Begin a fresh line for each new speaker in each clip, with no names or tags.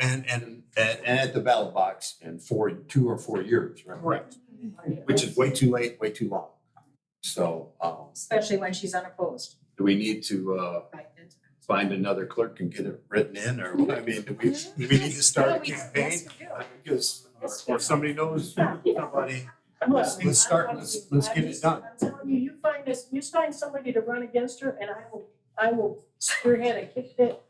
and, and, and and at the ballot box in four, two or four years, right?
Correct.
Which is way too late, way too long. So, um,
Especially when she's unopposed.
do we need to, uh,
Right.
find another clerk and get it written in or, I mean, do we, do we need to start a campaign? Because, or somebody knows somebody, let's, let's start, let's, let's get it done.
I'm telling you, you find this, you find somebody to run against her and I will, I will spearhead a kick that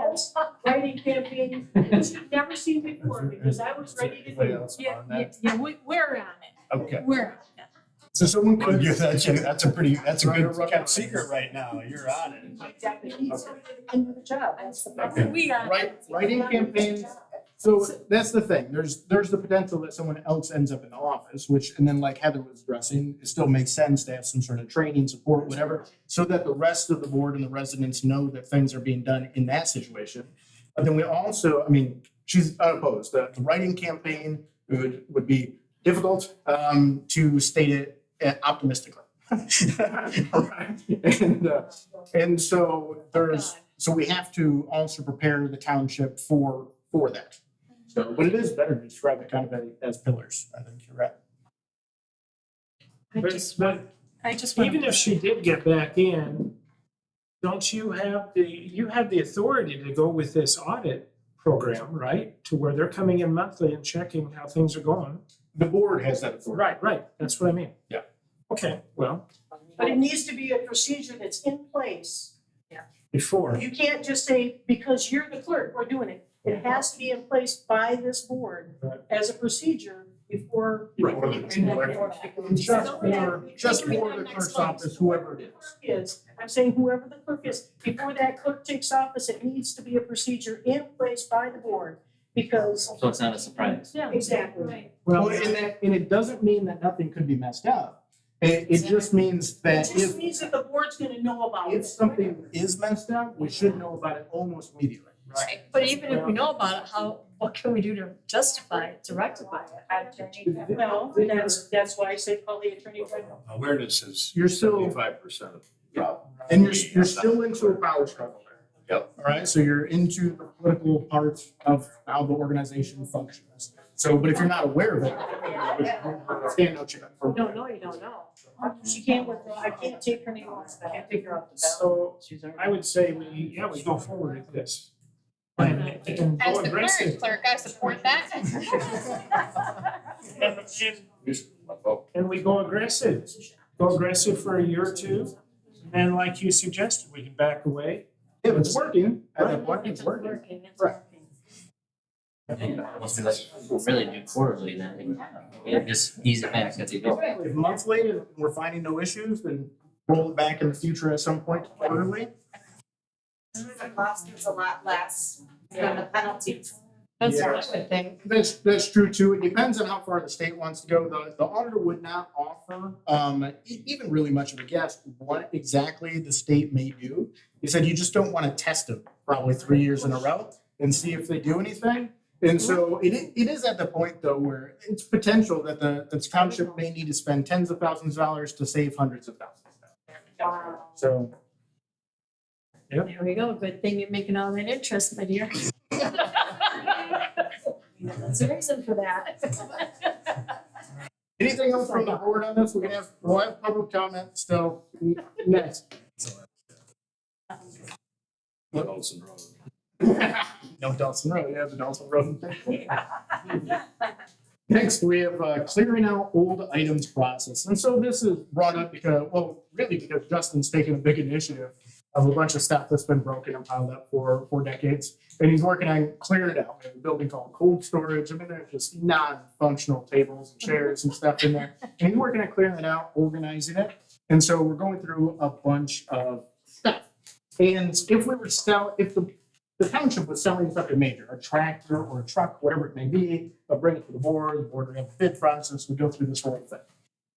ass writing campaign that you've never seen before because I was ready to
Anybody
do.
else
Yeah,
on
yeah,
that?
yeah, we, we're on
Okay.
it, we're on
So someone could.
Yeah, that's, that's a pretty, that's a good
kept secret right now. You're on it.
Exactly, need somebody to come with a job, that's the problem.
it, we are.
Right, writing campaigns. So that's the thing. There's there's the potential that someone else ends up in the office, which and then like Heather was addressing, it still makes sense to have some sort of training, support, whatever, so that the rest of the board and the residents know that things are being done in that situation. But then we also, I mean, she's unopposed. The, the writing campaign would would be difficult um, to state it uh, optimistically. and uh, and so there's so we have to also prepare the township for, for that. So, but it is better to describe it kind of as pillars, I think you're right.
But it's- but
I just want.
even if she did get back in, don't you have the, you have the authority to go with this audit program, right? To where they're coming in monthly and checking how things are going.
The board has that authority.
Right, right, that's what I mean.
Yeah.
Okay, well,
But it needs to be a procedure that's in place.
before,
You can't just say, because you're the clerk, we're doing it. It has to be in place by this board
Right.
as a procedure before.
Or the- Just for, just for the clerk's office, whoever it is.
Is, I'm saying whoever the clerk is, before that clerk takes office, it needs to be a procedure in place by the board because.
So it's not a surprise.
Yeah.
Exactly.
Right.
Well, and that, and it doesn't mean that nothing could be messed up. It, it just means
It
that
just
if,
means that the board's gonna know about
if
it.
something is messed up, we should know about it almost immediately.
Right, but even if we know about it, how, what can we do to justify it, to rectify it? I don't think that-
Well, that's, that's why I said call the attorney general.
Awareness is
You're still,
seventy-five percent of the problem.
and you're, you're still into a power struggle there.
Yep.
All right, so you're into the political part of how the organization functions. So, but if you're not aware of it, stand no chance.
No, no, you don't know. She can't withdraw, I can't take her name off, I can't take her off the ballot.
so I would say we, yeah, we go forward with this. And and
As
go
the
embrace
clerk,
it.
clerk, I support that.
And, and, and we go aggressive, go aggressive for a year or two. And then like you suggested, we can back away
If it's working, at that
Right.
point, it's working.
it's
Right.
working.
Must be like, we'll really do quarterly then. Yeah, just ease it back as you go.
If monthly and we're finding no issues, then roll it back in the future at some point quarterly.
The cost is a lot less
than
the penalties.
That's
Yeah.
what I would think.
That's, that's true too. It depends on how far the state wants to go. The, the auditor would not offer, um, e- even really much of a guess what exactly the state may do. He said you just don't want to test them probably three years in a row and see if they do anything. And so it, i- it is at the point though where it's potential that the, the township may need to spend tens of thousands of dollars to save hundreds of thousands. of dollars.
Um,
So.
There we go, good thing you're making all that interest, my dear. There's a reason for that.
Anything else from the board on this? We're gonna have, we'll have public comment still n- next.
Olson Road.
No Dawson Road, yeah, the Dawson Road. Next, we have uh, clearing out old items process. And so this is brought up because, well, really because Justin's taken a big initiative of a bunch of stuff that's been broken and piled up for, for decades. And he's working on clearing it out. We have a building called cold storage. I mean, there's just non-functional tables and chairs and stuff in there. And he's working on clearing it out, organizing it. And so we're going through a bunch of stuff. And if we were sell, if the the township was selling something major, a tractor or a truck, whatever it may be, they'll bring it to the board, the board would have a bid process, we go through this whole thing.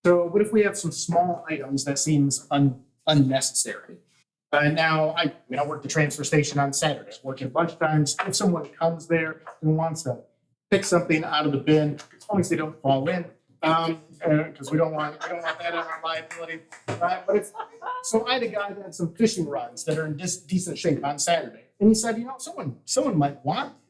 So what if we have some small items that seems un- unnecessary? Uh, now, I, I mean, I work the transfer station on Saturdays, working lunch times, if someone comes there and wants to pick something out of the bin, as long as they don't fall in, um, uh, cause we don't want, we don't want that as a liability. Uh, but if so I had a guy that had some fishing rods that are in dis- decent shape on Saturday, and he said, you know, someone someone might want these.